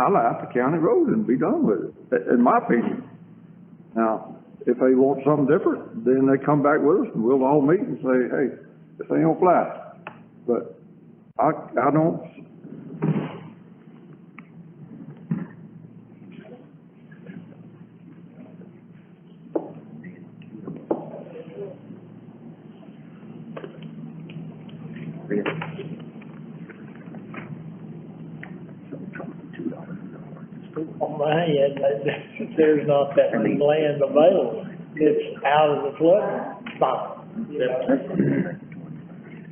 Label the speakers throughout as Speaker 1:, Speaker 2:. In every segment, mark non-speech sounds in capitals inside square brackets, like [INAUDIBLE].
Speaker 1: highlight the county road and be done with it, i- in my opinion. Now, if they want something different, then they come back with us and we'll all meet and say, hey, this ain't gonna fly. But I, I don't,
Speaker 2: on my end, that [LAUGHS] there's not that much land available. It's out of the flood spot, you know?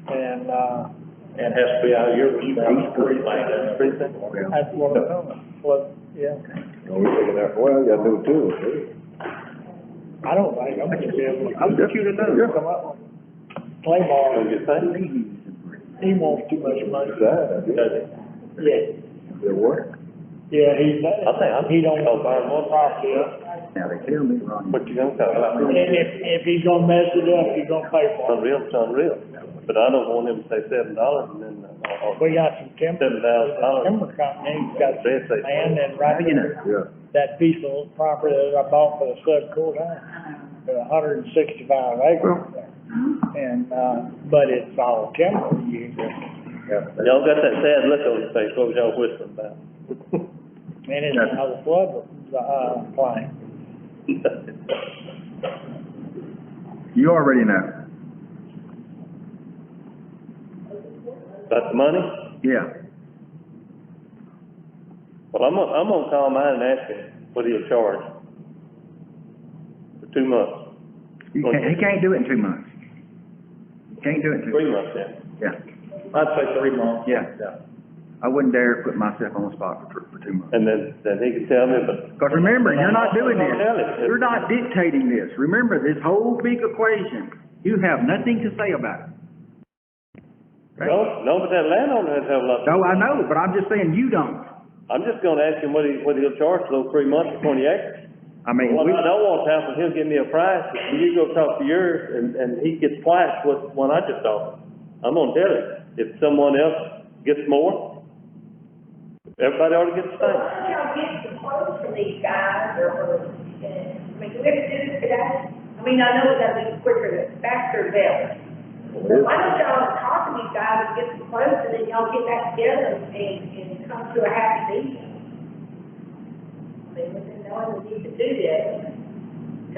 Speaker 2: And, uh,
Speaker 3: And has to be out of your responsibility. Precinct.
Speaker 2: that's what I'm talking about, flood, yeah.
Speaker 4: Well, you gotta do two,
Speaker 2: I don't think I'm gonna be able to
Speaker 1: I'm just, yeah,
Speaker 2: come up with Claymore,
Speaker 3: Don't you think?
Speaker 2: he wants too much money.
Speaker 3: Does it?
Speaker 2: Yeah,
Speaker 4: It work?
Speaker 2: yeah, he,
Speaker 3: I think I'm.
Speaker 2: he don't
Speaker 3: I'll
Speaker 2: want
Speaker 3: buy more property.
Speaker 4: Now, they tell me, Ronnie.
Speaker 3: What you gonna talk about?
Speaker 2: And if, if he's gonna mess it up, he's gonna pay
Speaker 3: It's
Speaker 2: for it.
Speaker 3: Unreal, it's unreal. But I don't want him to say seven dollars and then, uh, or
Speaker 2: We got some timber,
Speaker 3: seven thousand dollars.
Speaker 2: timber company, he's got
Speaker 3: They say-
Speaker 2: land and right there.
Speaker 1: yeah.
Speaker 2: that piece of property that I bought for the flood courthouse, a hundred and sixty-five acres there. And, uh, but it's all timber, you, and
Speaker 3: Y'all got that sad look on your face, what was y'all whispering about? [LAUGHS]
Speaker 2: it's how the flood, uh, plain.
Speaker 4: You already know,
Speaker 3: About the money?
Speaker 4: yeah.
Speaker 3: Well, I'm gonna, I'm gonna call mine and ask him what he'll charge for two months,
Speaker 4: He can't, he can't do it in two months. He Can't do it in two,
Speaker 3: three months then.
Speaker 4: yeah,
Speaker 3: I'd say three months.
Speaker 4: yeah. I wouldn't dare put myself on the spot for, for two months.
Speaker 3: And then, then he can tell me, but
Speaker 4: Because remember, you're not doing this,
Speaker 3: Don't tell it.
Speaker 4: you're not dictating this. Remember, this whole big equation, you have nothing to say about it.
Speaker 3: No, no, but that landowner has to have a lot.
Speaker 4: No, I know, but I'm just saying you don't.
Speaker 3: I'm just gonna ask him what he, what he'll charge for those three months for twenty acres.
Speaker 4: I mean,
Speaker 3: What
Speaker 4: we,
Speaker 3: I don't want to happen, he'll give me a price, and you go talk to yours, and, and he gets twice what, what I just offered. I'm gonna tell him, if someone else gets more, everybody ought to get the
Speaker 5: Well,
Speaker 3: same.
Speaker 5: why don't y'all get the quotes from these guys, or, or, uh, I mean, do we have to do this today? I mean, I know it's gonna be quicker than faster than, but why don't y'all talk to these guys and get some quotes, and then y'all get back together and, and come to a happy meeting? I mean, we didn't know that you could do that.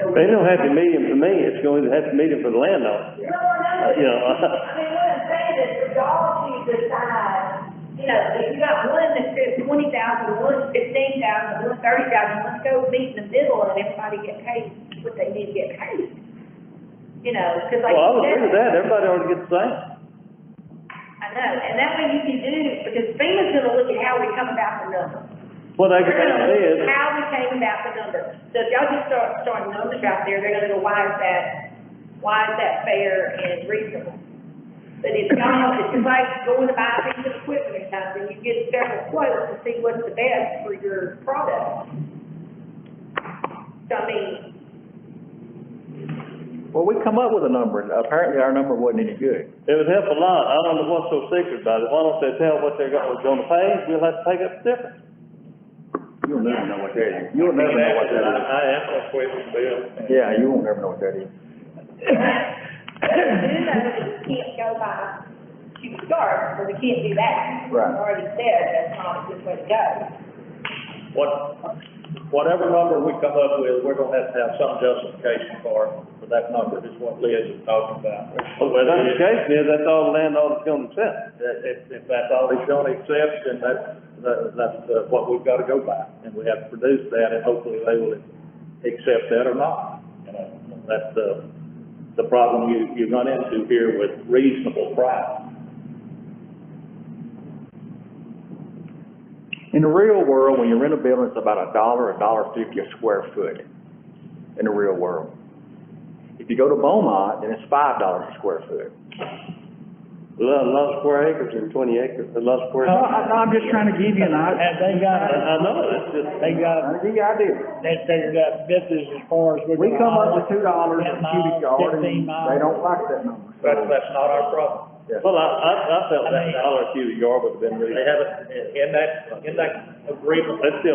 Speaker 5: So we-
Speaker 3: They don't have to meet him for me, it's going to have to meet him for the landowner.
Speaker 5: No, I know.
Speaker 3: You know,
Speaker 5: I mean, what I'm saying is for y'all to decide, you know, if you got one that says twenty thousand, one fifteen thousand, one thirty thousand, let's go meet in the middle and everybody get paid what they need to get paid. You know, cause like.
Speaker 3: Well, I would
Speaker 5: you
Speaker 3: agree with
Speaker 5: said-
Speaker 3: that, everybody ought to get the same.
Speaker 5: I know, and that way you can do, because FEMA's gonna look at how we come about the numbers.
Speaker 3: What they
Speaker 5: They're
Speaker 3: can
Speaker 5: gonna
Speaker 3: do is,
Speaker 5: look at how we came about the numbers. So if y'all just start, start numbers out there, they're gonna go, why is that, why is that fair and reasonable? But if y'all, if it's like going to buy a piece of equipment or something, you get several quotes to see what's the best for your product. So I mean,
Speaker 6: Well, we come up with a number, and apparently our number wasn't any good.
Speaker 3: it would help a lot, I don't know what's so secret about it, why don't they tell what they're gonna, gonna pay, we'll have to take up the difference.
Speaker 6: You'll never know what that is. You'll never know what that is.
Speaker 3: I asked that question, Bill.
Speaker 6: Yeah, you won't never know what that is.
Speaker 5: you know, that you can't go by, you start, because you can't do that.
Speaker 6: Right.
Speaker 5: Already said, that's not a good way to go.
Speaker 7: what, whatever number we come up with, we're gonna have to have some justification for, for that number, is what Liz is talking about.
Speaker 3: Well, the justification is that's all the landowner's gonna accept.
Speaker 7: If, if that's all he's gonna accept, then that's, that- that's uh, what we've gotta go by, and we have to produce that, and hopefully they will accept that or not. You know, that's the, the problem you, you run into here with reasonable price.
Speaker 6: In the real world, when you rent a building, it's about a dollar, a dollar fifty a square foot in the real world. If you go to Beaumont, then it's five dollars a square foot.
Speaker 3: A lot, a lot of square acres and twenty acres, a lot of square.
Speaker 4: no, I, I'm just trying to give you an idea.
Speaker 2: And they got,
Speaker 3: I, I know, it's just,
Speaker 2: they got,
Speaker 6: I give you an idea.
Speaker 2: they figured out this is as far as we're
Speaker 4: We
Speaker 2: gonna.
Speaker 4: come up with two dollars a
Speaker 2: Ten miles,
Speaker 4: cubic yard,
Speaker 2: fifteen
Speaker 4: and
Speaker 2: miles.
Speaker 4: they don't like that number.
Speaker 7: That's, that's not our problem.
Speaker 3: Well, I, I, I felt
Speaker 2: I
Speaker 3: that
Speaker 2: mean-
Speaker 3: dollar a cubic yard would have been really,
Speaker 7: They haven't, in- in that, in that agreement,
Speaker 3: that's the